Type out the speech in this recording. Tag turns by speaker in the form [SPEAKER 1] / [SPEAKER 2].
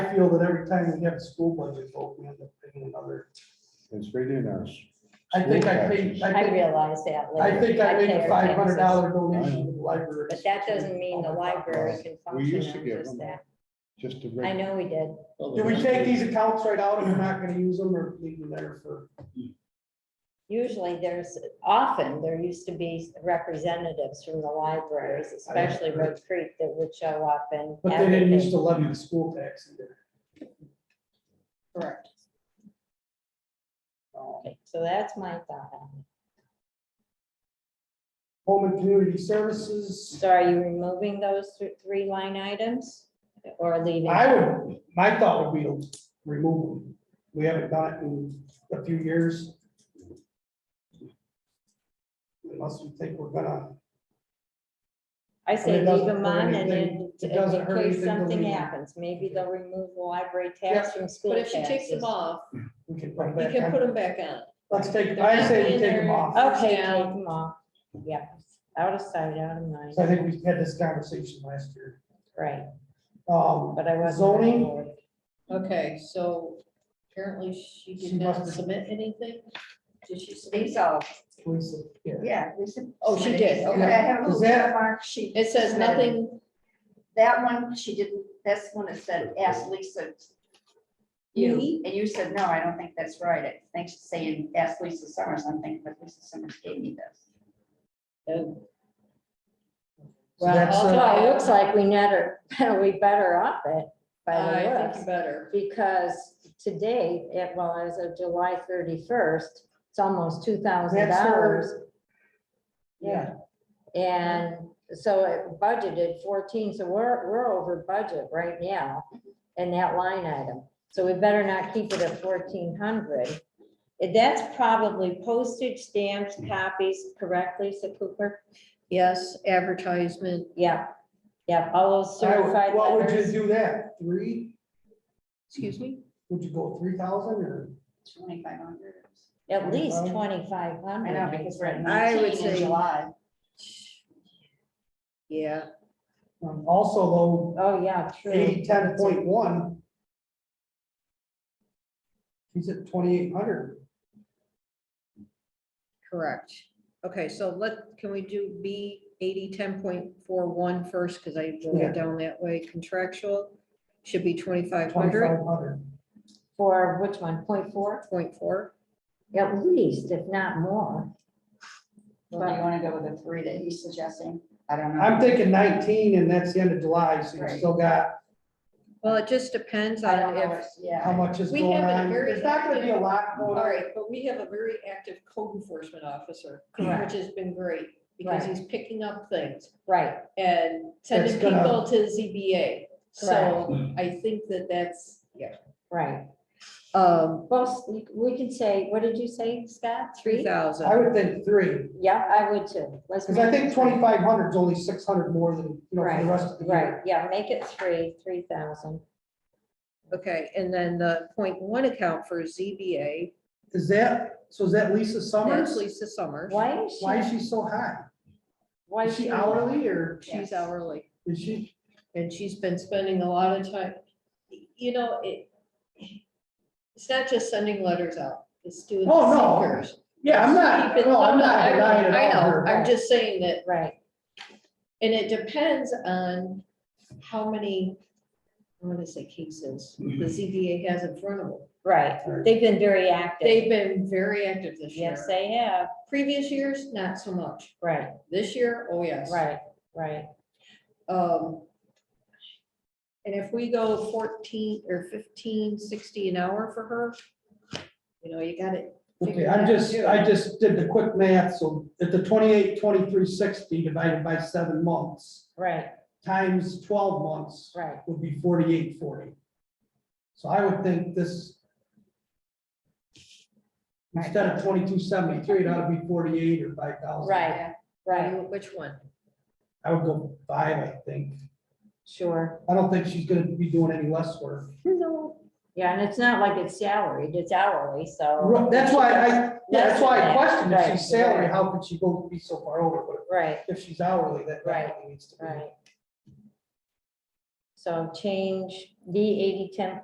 [SPEAKER 1] I feel that every time we have a school budget vote, we end up paying another.
[SPEAKER 2] It's reading us.
[SPEAKER 1] I think I paid, I
[SPEAKER 3] I
[SPEAKER 1] think,
[SPEAKER 3] realize that
[SPEAKER 1] I
[SPEAKER 3] later.
[SPEAKER 1] think I made
[SPEAKER 3] pay
[SPEAKER 1] a
[SPEAKER 3] our
[SPEAKER 1] five hundred
[SPEAKER 3] taxes,
[SPEAKER 1] dollar donation to the library.
[SPEAKER 3] But that doesn't mean the library can function
[SPEAKER 2] used to
[SPEAKER 3] on
[SPEAKER 2] give
[SPEAKER 3] just
[SPEAKER 2] them
[SPEAKER 3] that.
[SPEAKER 2] Just a
[SPEAKER 3] I
[SPEAKER 2] regular.
[SPEAKER 3] know we did.
[SPEAKER 1] Do we take these accounts right out and we're not gonna use them or leave them there for?
[SPEAKER 3] Usually there's, often there used to be representatives from the libraries, especially Red Creek, that would show up and.
[SPEAKER 1] But they didn't
[SPEAKER 3] advocate.
[SPEAKER 1] use to levy the school tax either.
[SPEAKER 3] Correct.
[SPEAKER 1] Um,
[SPEAKER 3] Okay, So that's my thought on it.
[SPEAKER 1] Home and community services,
[SPEAKER 3] So are you removing those thr- three line items or leaving?
[SPEAKER 1] I would, my thought would be to remove them. We haven't done it in a few years. Unless we think we're gonna,
[SPEAKER 3] I say
[SPEAKER 1] It doesn't
[SPEAKER 3] leave them
[SPEAKER 1] hurt
[SPEAKER 3] on and
[SPEAKER 1] anything.
[SPEAKER 3] in
[SPEAKER 1] It doesn't
[SPEAKER 3] in
[SPEAKER 1] hurt
[SPEAKER 3] case
[SPEAKER 1] anything to
[SPEAKER 3] something
[SPEAKER 1] leave them.
[SPEAKER 3] happens, maybe they'll remove the library
[SPEAKER 1] Yeah.
[SPEAKER 3] tax from school
[SPEAKER 4] But if she takes
[SPEAKER 3] taxes.
[SPEAKER 4] them off,
[SPEAKER 1] we can put them
[SPEAKER 4] you
[SPEAKER 1] back
[SPEAKER 4] can
[SPEAKER 1] on.
[SPEAKER 4] put them back on.
[SPEAKER 1] Let's take, I say we take them off.
[SPEAKER 3] Okay, take
[SPEAKER 4] Yeah.
[SPEAKER 3] them off, yeah, out of sight, out of mind,
[SPEAKER 1] So I think we had this conversation last year.
[SPEAKER 3] right,
[SPEAKER 1] Um,
[SPEAKER 3] but I wasn't.
[SPEAKER 1] Zoning?
[SPEAKER 3] aware.
[SPEAKER 4] Okay, so apparently she
[SPEAKER 1] She
[SPEAKER 4] did
[SPEAKER 1] must
[SPEAKER 4] not
[SPEAKER 1] have-
[SPEAKER 4] submit anything? Did she submit?
[SPEAKER 5] These all,
[SPEAKER 1] Lisa, yeah.
[SPEAKER 5] yeah. we sub-
[SPEAKER 4] Oh, she did,
[SPEAKER 5] I
[SPEAKER 4] okay.
[SPEAKER 5] have a
[SPEAKER 1] Is
[SPEAKER 5] little
[SPEAKER 1] that-
[SPEAKER 5] mark sheet.
[SPEAKER 4] It says nothing,
[SPEAKER 5] That one, she didn't, that's when it said, ask Lisa. You,
[SPEAKER 3] Me?
[SPEAKER 5] and you said, no, I don't think that's right. I think she's saying, ask Lisa Summers, I'm thinking, but Lisa Summers gave me this.
[SPEAKER 4] oh,
[SPEAKER 1] So
[SPEAKER 3] Well,
[SPEAKER 1] that's, uh,
[SPEAKER 3] although it looks like we netter, we better off it by
[SPEAKER 4] I
[SPEAKER 3] the
[SPEAKER 4] think you
[SPEAKER 3] looks.
[SPEAKER 4] better.
[SPEAKER 3] Because today, it, well, as of July thirty-first, it's almost two thousand
[SPEAKER 1] That's her-
[SPEAKER 3] dollars. Yeah. And so it budgeted fourteen, so we're, we're over budget right now in that line item. So we better not keep it at fourteen hundred. That's probably postage stamps,
[SPEAKER 1] Mm.
[SPEAKER 3] copies correctly, so Cooper?
[SPEAKER 4] Yes, advertisement,
[SPEAKER 3] Yeah, yeah, all those
[SPEAKER 1] I would-
[SPEAKER 3] certified
[SPEAKER 1] What would you
[SPEAKER 3] letters.
[SPEAKER 1] do that? Three?
[SPEAKER 4] excuse me?
[SPEAKER 1] Would you go three thousand or?
[SPEAKER 5] Twenty-five hundred.
[SPEAKER 3] At least
[SPEAKER 1] 25?
[SPEAKER 3] twenty-five hundred.
[SPEAKER 5] I know, because we're at
[SPEAKER 4] I would
[SPEAKER 5] nineteen in
[SPEAKER 4] say-
[SPEAKER 5] July.
[SPEAKER 4] Yeah,
[SPEAKER 1] um, Also though,
[SPEAKER 3] Oh, yeah, true.
[SPEAKER 1] eighty, ten point one. He's at twenty-eight hundred.
[SPEAKER 4] correct. Okay, so let, can we do B eighty ten point four one first, because I wrote
[SPEAKER 1] Yeah.
[SPEAKER 4] it down that way, contractual should be twenty-five hundred
[SPEAKER 1] Twenty-five hundred.
[SPEAKER 3] For which one? Point four?
[SPEAKER 4] point four.
[SPEAKER 3] At least, if not more.
[SPEAKER 5] Well, do you wanna go with the three that he's suggesting? I don't know.
[SPEAKER 1] I'm thinking nineteen and that's the end of July, so you
[SPEAKER 5] Right.
[SPEAKER 1] still got
[SPEAKER 4] Well, it just depends
[SPEAKER 5] I don't
[SPEAKER 4] on
[SPEAKER 5] know,
[SPEAKER 4] if
[SPEAKER 5] what- yeah.
[SPEAKER 1] how much is
[SPEAKER 4] We
[SPEAKER 1] going
[SPEAKER 4] have a
[SPEAKER 1] on.
[SPEAKER 4] very-
[SPEAKER 1] There's not gonna be a lot going
[SPEAKER 4] All
[SPEAKER 1] on.
[SPEAKER 4] right, but we have a very active code enforcement officer,
[SPEAKER 3] Correct.
[SPEAKER 4] which has been great, because
[SPEAKER 3] Right.
[SPEAKER 4] he's picking up things
[SPEAKER 3] Right,
[SPEAKER 4] and sending
[SPEAKER 1] That's gonna-
[SPEAKER 4] people to ZBA. So I think that that's, yeah.
[SPEAKER 3] right.
[SPEAKER 4] Um,
[SPEAKER 3] Well, we- we can say, what did you say, Scott?
[SPEAKER 4] three
[SPEAKER 1] I
[SPEAKER 4] thousand,
[SPEAKER 1] would think three,
[SPEAKER 3] Yeah, I would too. Let's.
[SPEAKER 1] because I
[SPEAKER 3] make it
[SPEAKER 1] think
[SPEAKER 3] three.
[SPEAKER 1] twenty-five hundred is only six hundred more than, you know, for
[SPEAKER 3] Right,
[SPEAKER 1] the rest of the year.
[SPEAKER 3] Right, yeah, make it three, three thousand.
[SPEAKER 4] okay, and then the point one account for ZBA,
[SPEAKER 1] Is that, so is that Lisa Summers?
[SPEAKER 4] that's Lisa Summers.
[SPEAKER 3] Why is she?
[SPEAKER 1] Why is she so high?
[SPEAKER 3] Why
[SPEAKER 1] Is she hourly or
[SPEAKER 4] She's hourly,
[SPEAKER 1] is she?
[SPEAKER 4] and she's been spending a lot of time, you know, it, it's not just sending letters out, it's doing
[SPEAKER 1] Oh, no.
[SPEAKER 4] seekers.
[SPEAKER 1] Yeah, I'm not,
[SPEAKER 4] Keep it-
[SPEAKER 1] no, I'm not
[SPEAKER 4] I know,
[SPEAKER 1] denying
[SPEAKER 4] I
[SPEAKER 1] it all.
[SPEAKER 4] know,
[SPEAKER 1] her.
[SPEAKER 4] I'm just saying that
[SPEAKER 3] Right,
[SPEAKER 4] And it depends on how many, I'm gonna say cases, the
[SPEAKER 1] Mm-hmm.
[SPEAKER 4] ZBA has in front of them.
[SPEAKER 3] right. They've been very active.
[SPEAKER 4] They've been very active this year.
[SPEAKER 3] Yes, they have.
[SPEAKER 4] Previous years, not so much.
[SPEAKER 3] Right,
[SPEAKER 4] This year, oh yes.
[SPEAKER 3] right, right.
[SPEAKER 4] Um, and if we go fourteen or fifteen, sixty an hour for her, you know, you got it.
[SPEAKER 1] Okay, I'm just, I just did the quick math, so at the twenty-eight, twenty-three, sixty divided by seven months,
[SPEAKER 3] Right,
[SPEAKER 1] times twelve months
[SPEAKER 3] right.
[SPEAKER 1] would be forty-eight, forty. So I would think this instead of twenty-two, seventy-three, it ought to be forty-eight or five thousand.
[SPEAKER 3] Right, right,
[SPEAKER 4] Which one?
[SPEAKER 1] I would go five, I think.
[SPEAKER 3] sure.
[SPEAKER 1] I don't think she's gonna be doing any less work.
[SPEAKER 3] Yeah, and it's not like it's salaried, it's hourly, so.
[SPEAKER 1] Ru- That's why I, yeah, that's why I
[SPEAKER 3] Right,
[SPEAKER 1] questioned if she's
[SPEAKER 3] right,
[SPEAKER 1] salary,
[SPEAKER 3] right.
[SPEAKER 1] how could she go be so far over, but
[SPEAKER 3] Right,
[SPEAKER 1] if she's hourly, that
[SPEAKER 3] Right,
[SPEAKER 1] definitely needs to be.
[SPEAKER 3] right. So change D eighty ten